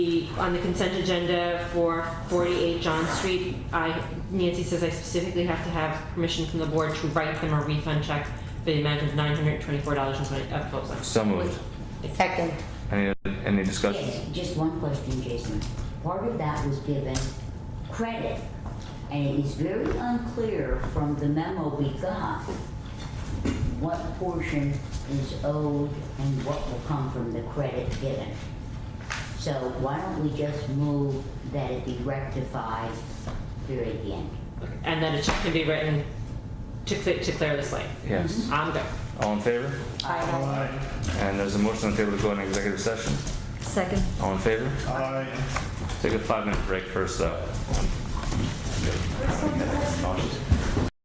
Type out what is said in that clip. The- On the consent agenda for 48 John Street, I, Nancy says I specifically have to have permission from the board to write them a refund check for the amount of $924.20. of closing. So moved. Second. Any, any discussion? Yes, just one question, Jason. Part of that was given credit, and it is very unclear from the memo we got what portion is owed and what will come from the credit given. So why don't we just move that it be rectified, period, the end? And then a check can be written to clear, to clear the slate. Yes. I'm good. All in favor? Mm-hmm. Aye. And there's a motion on the table to go into executive session. Second. All in favor? Aye. Take a five-minute break first, though.